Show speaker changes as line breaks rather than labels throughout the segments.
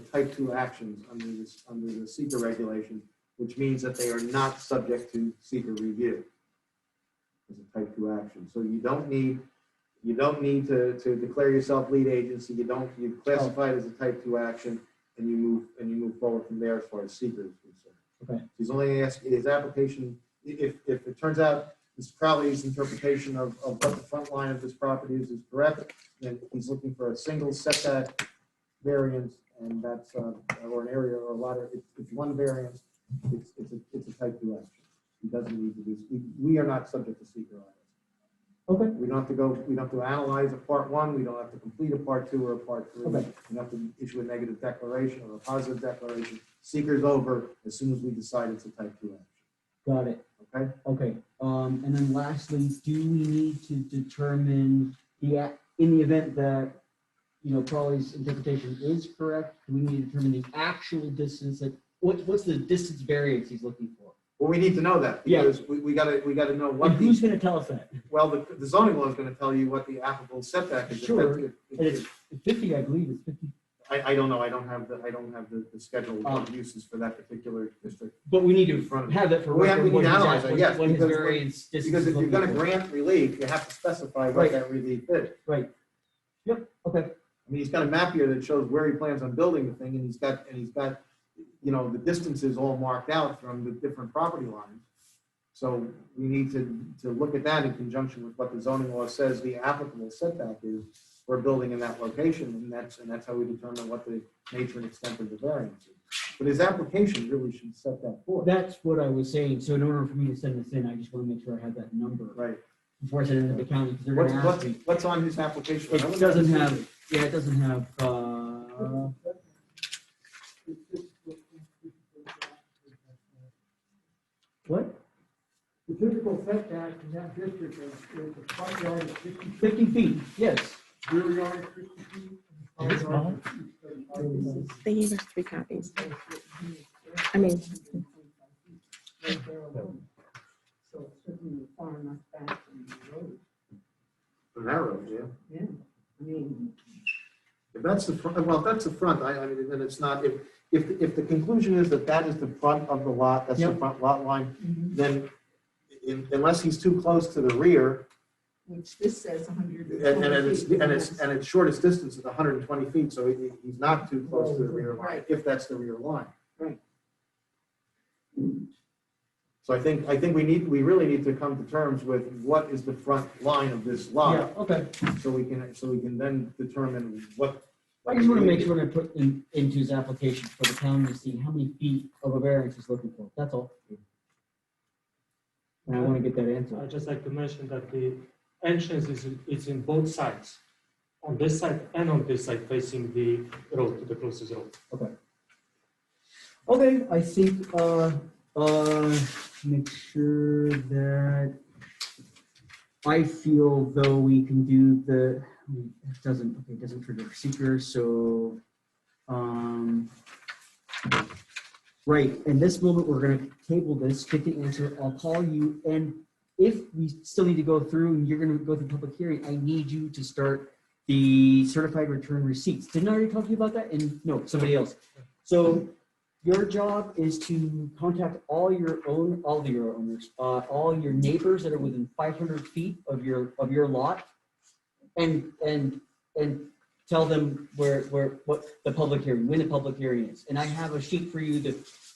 type two actions under this, under the seeker regulation, which means that they are not subject to seeker review. As a type two action. So you don't need, you don't need to, to declare yourself lead agency. You don't, you classify it as a type two action and you move, and you move forward from there as far as seeker is concerned.
Okay.
He's only asking, his application, i- if, if it turns out Mr. Crowley's interpretation of, of what the front line of this property is, is correct, then he's looking for a single setback variance, and that's, uh, or an area or a lot of, it's, it's one variance, it's, it's a, it's a type two action. He doesn't need to do, we, we are not subject to seeker on this.
Okay.
We don't have to go, we don't have to analyze a part one, we don't have to complete a part two or a part three.
Okay.
We don't have to issue a negative declaration or a positive declaration. Seeker's over as soon as we decide it's a type two action,
Got it.
okay?
Okay. Um, and then lastly, do we need to determine the, ac- in the event that, you know, Crowley's interpretation is correct, do we need to determine the actual distance that, what, what's the distance variance he's looking for?
Well, we need to know that
Yeah.
because we, we gotta, we gotta know
And
what
who's
the,
gonna tell us that?
well, the the zoning law is gonna tell you what the applicable setback is. If
Sure,
that- if-
And it's
if-
fifty, I believe, it's fifty.
I, I don't know, I don't have the, I don't have the, the schedule of
Um,
uses for that particular district.
But we need
In front
to
of-
have that for.
We have-
record,
we need
what
to
his
analyze
act-
it, yes,
What his
because when-
variance distance.
Because if
is
you're gonna
looking for.
grant relief, you have to specify
Right.
what that relief is.
Right. Yep, okay,
I mean, he's got a map here that shows where he plans on building the thing, and he's got, and he's got, you know, the distances all marked out from the different property lines. So we need to, to look at that in conjunction with what the zoning law says the applicable setback is for a building in that location, and that's, and that's how we determine what the nature and extent of the variance is. But his application really should set that forth,
that's what I was saying. So in order for me to send this in, I just wanna make sure I have that number
right?
before I send it to the county, because they're
What's,
gonna
what's,
ask me.
what's on his application? I
It
wouldn't-
doesn't have, yeah, it doesn't have, uh, what,
The typical setback in that district is, is the front yard is fifty,
fifty feet, yes.
rear yard is fifty feet. and the side yard is 35 feet.
They gave us three copies. I mean-
Right there alone. So it's certainly far enough back from the road,
Narrow, yeah.
yeah, I mean.
If that's the, front, well, if that's the front, I, I mean, then it's not, if, if, if the conclusion is that that is the front of the lot, that's the
Yep.
front lot line, then in- unless he's too close to the rear,
Which this says hundred.
and, and it's, and it's, and its shortest distance is hundred and twenty feet, so he, he's not too close to the rear line,
Right.
if that's the rear line.
Right.
So I think, I think we need, we really need to come to terms with what is the front line of this
Yeah,
lot,
okay.
so we can, so we can then determine what.
I just wanna make sure I put in, into his application for the county to see how many feet of a variance he's looking for, that's all. And I wanna get that answer.
I'd just like to mention that the entrance is, is in both sides, on this side and on this side facing the road, to the closest road.
Okay, I think, uh, uh, make sure that I feel though we can do the, it doesn't, okay, it doesn't trigger seeker, so, um, right, in this moment, we're gonna table this, get the answer, I'll call you, and if we still need to go through and you're gonna go through public hearing, I need you to start the certified return receipts. Didn't I already talk to you about that? And, no, somebody else. So your job is to contact all your own, all of your owners, uh, all your neighbors that are within five hundred feet of your, of your lot. And, and, and tell them where, where, what the public hearing, when the public hearing is. And I have a sheet for you that,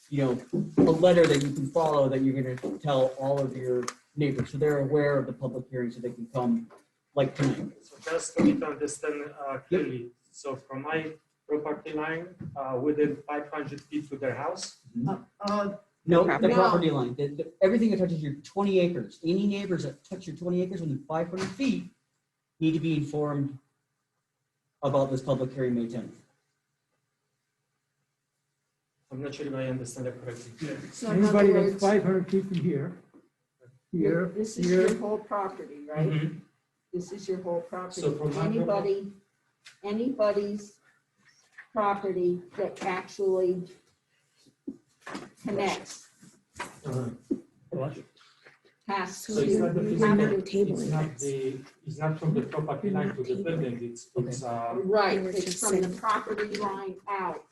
you know, a letter that you can follow that you're gonna tell all of your neighbors. So they're aware of the public hearing so they can come like tonight.
So just to need to understand uh, clearly, so from my property line, uh, within five hundred feet to their house,
Uh,
No, the
Property.
property line, The- the- everything that touches your twenty acres, any neighbors that touch your twenty acres within five hundred feet need to be informed about this public hearing May tenth.
I'm not sure if I understand that correctly.
So in other
Anybody that's
words,
five hundred feet from here, here,
this is
here, Mm-hmm.
your whole property, right?
Mhm.
This is your whole property.
So from my-
Anybody, anybody's property that actually connects
Uh,
has
So it's not the
to
physical-
have it.
It's
tabling
not
this.
the, it's not from the property line to the building, it's, it's, uh,
Right,
They were
it's
just
from the
saying-
property line out.